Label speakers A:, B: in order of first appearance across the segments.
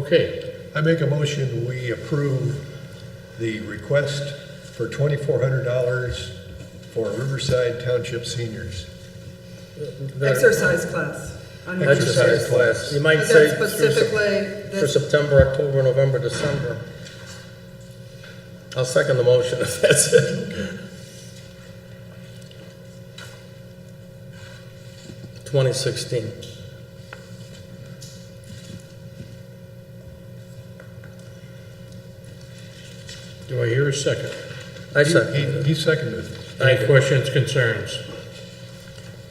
A: Okay,
B: I make a motion, we approve the request for twenty-four hundred dollars for Riverside Township seniors.
A: that-
C: Exercise class. on your-
B: Exercise
A: exercise
B: class.
A: class, you might
C: But
A: say
C: that's
A: through
C: specifically,
A: Sep- for
C: that's,
A: September, October, November, December. I'll second the motion if that's it. Twenty sixteen.
D: Do I hear a second?
A: I
B: He,
A: second it.
B: he seconded it.
A: Thank
D: Any
A: you.
D: questions, concerns?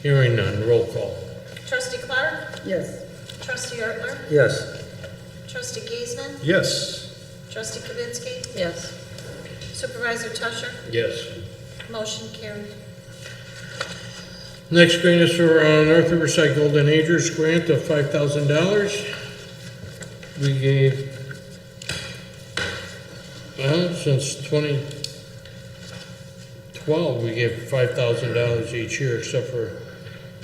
D: Hearing none, roll call.
E: Trustee Clark?
C: yes.
E: Trustee Ertler?
A: Yes,
E: Trustee Giesman?
B: Yes,
E: Trustee Kavitsky?
C: Yes.
E: Supervisor Tusher?
D: Yes.
E: Motion carried.
D: Next grant is for uh, North Riverside Golden Agers grant of five thousand dollars. We gave, well, since twenty twelve, we gave five thousand dollars each year except for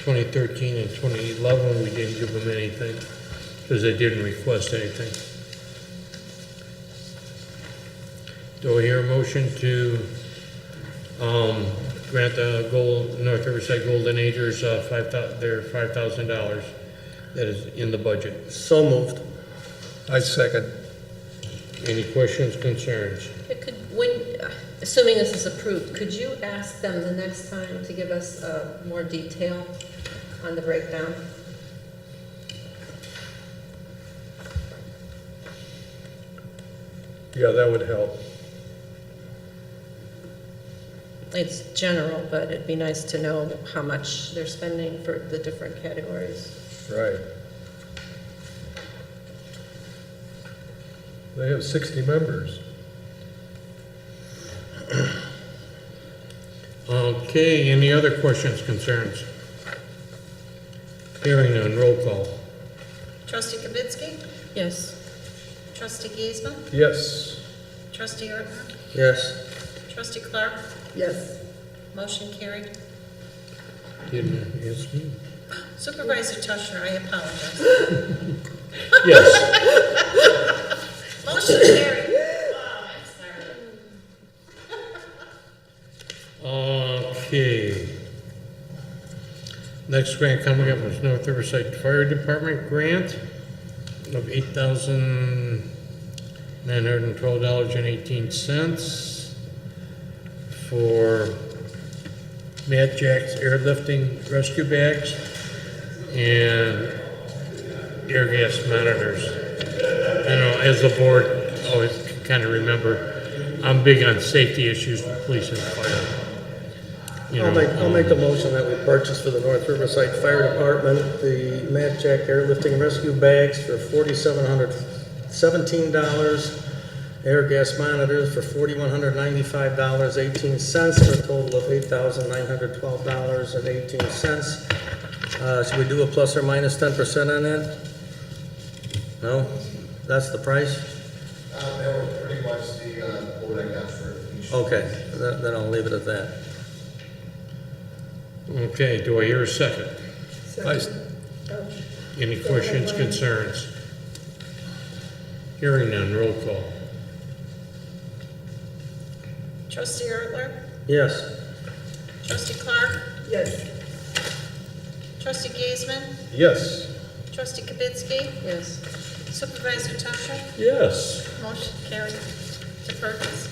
D: twenty thirteen and twenty eleven, we didn't give them anything because they didn't request anything. Do I hear a motion to um, grant the gold, North Riverside Golden Agers, uh, five thou, their five thousand dollars that is in the budget.
A: so moved.
B: I second.
D: Any questions, concerns?
F: It Could, when, assuming this is approved, could you ask them the next time to give us uh, more detail on the breakdown?
B: Yeah, that would help.
F: It's general, but it'd be nice to know how much they're spending for the different categories.
B: Right. They have sixty members.
D: Okay, any other questions, concerns? Hearing none, roll call.
E: Trustee Kavitsky?
F: Yes,
E: Trustee Giesman?
B: Yes,
E: Trustee Ertler?
A: Yes,
E: Trustee Clark?
C: Yes.
E: Motion carried.
D: Didn't, yes, me?
E: Supervisor Tusher, I apologize.
D: Yes,
E: Motion carried.
D: okay. Next grant coming up is North Riverside Fire Department grant of eight thousand nine hundred and twelve dollars and eighteen cents for Matt Jack's airlifting rescue bags and air gas monitors. I know, as a board, always kind of remember, I'm big on safety issues with police and fire. You
A: I'll
D: know, um,
A: make, I'll make the motion that we purchase for the North Riverside Fire Department, the Matt Jack airlifting rescue bags for forty-seven hundred seventeen dollars, air gas monitors for forty-one hundred ninety-five dollars eighteen cents, for a total of eight thousand nine hundred twelve dollars and eighteen cents. Uh, should we do a plus or minus ten percent on that? No? That's the price?
G: Uh, That was pretty much the, uh, what I got for each.
A: Okay, then, then I'll leave it at that.
D: Okay, do I hear a second?
B: I,
C: Second.
D: Any questions, concerns? Hearing none, roll call.
E: Trustee Ertler?
A: Yes?
E: Trustee Clark?
C: Yes.
E: Trustee Giesman?
B: yes.
E: Trustee Kavitsky?
F: yes.
E: Supervisor Tusher?
B: Yes.
E: Motion carried to purchase.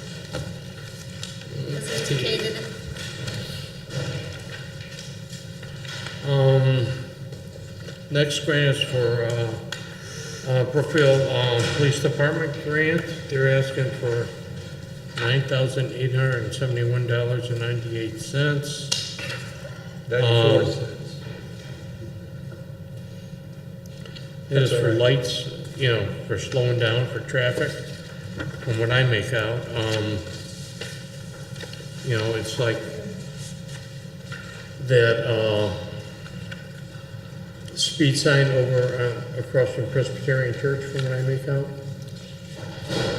E: As indicated.
D: Um, next grant is for, uh, uh, Brookfield, uh, Police Department grant. They're asking for nine thousand eight hundred and seventy-one dollars and ninety-eight cents.
B: Ninety-four
D: Um,
B: cents.
D: It is
B: That's all
D: for
B: right.
D: lights, you know, for slowing down for traffic, from what I make out. Um, you know, it's like that, uh, speed sign over, uh, across from Presbyterian Church, from what I make out.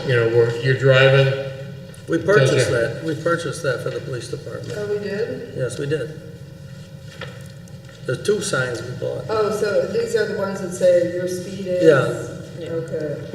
D: You know, where you're driving,
A: We purchased
D: Does it-
A: that, we purchased that for the police department.
C: Oh, we did?
A: Yes, we did. There's two signs we bought.
C: Oh, so these are the ones that say your speed is?
A: Yeah.
C: Okay.